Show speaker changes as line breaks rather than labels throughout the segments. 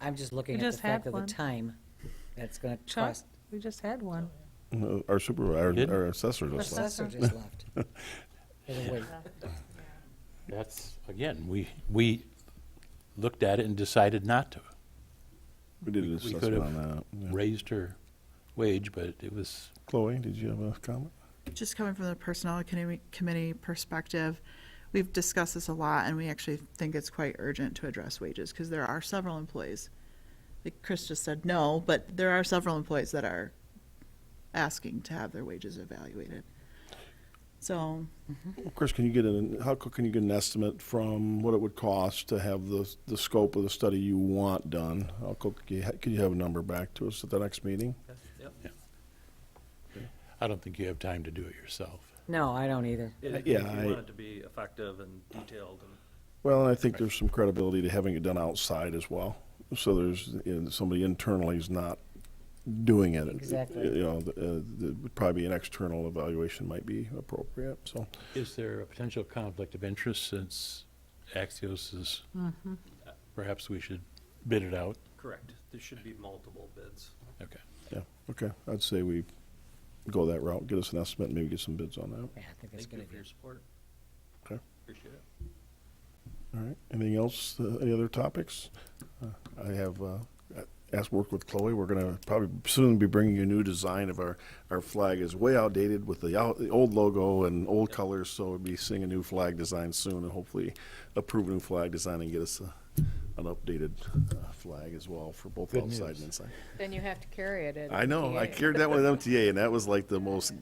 I'm just looking
We
at the
just
fact
had
of the
one.
time that's gonna
Chuck,
cost.
we just had one.
No, Our supervisor,
Did?
our assessor just left.
Assessor
Assessor.
just left. For the wait.
That's, again, we, we looked at it and decided not to.
We did an
We- we could
assessment on
have
that. yeah.
Raised her wage, but it was,
Chloe, did you have a comment?
Just coming from the Personnel Committee- Committee perspective, we've discussed this a lot, and we actually think it's quite urgent to address wages, because there are several employees. Like Chris just said, no, but there are several employees that are asking to have their wages evaluated. So,
Mm-hmm.
Chris, can you get an, how co- can you get an estimate from what it would cost to have the, the scope of the study you want done? How co- can you ha- can you have a number back to us at the next meeting?
I don't think you have time to do it yourself.
No, I don't either.
Uh,
If
yeah,
you
I-
want it to be effective and detailed and.
Well, and I think there's some credibility to having it done outside as well. So there's, you know, somebody internally is not doing it.
Exactly.
You know, the, uh, the, probably an external evaluation might be appropriate, so.
Is there a potential conflict of interest since Axios is, perhaps we should bid it out?
Correct. There should be multiple bids.
Okay.
Yeah, okay, I'd say we go that route, get us an estimate, and maybe get some bids on that.
Yeah, I think that's a
Thank
good
you for
idea.
your support.
Okay,
Appreciate it.
all right, anything else, Uh, any other topics? Uh, I have, uh, asked work with Chloe, we're gonna probably soon be bringing you a new design of our, our flag is way outdated with the out, the old logo and old colors, so we'll be seeing a new flag design soon, and hopefully approve a new flag design and get us a, an updated uh, flag as well for both
Good
outside
news.
and inside.
Then you have to carry it. at
I know. I
MTA.
carried that one at MTA, and that was like the most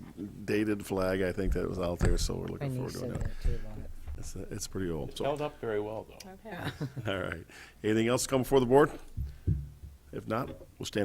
dated flag I think that was out there. So we're
My
looking forward
niece
to
said
it.
that too about it.
It's, uh, it's pretty old.
It's
So, all
held up very well, though.
Okay.
right. Anything else come before the board? If not, we'll stand.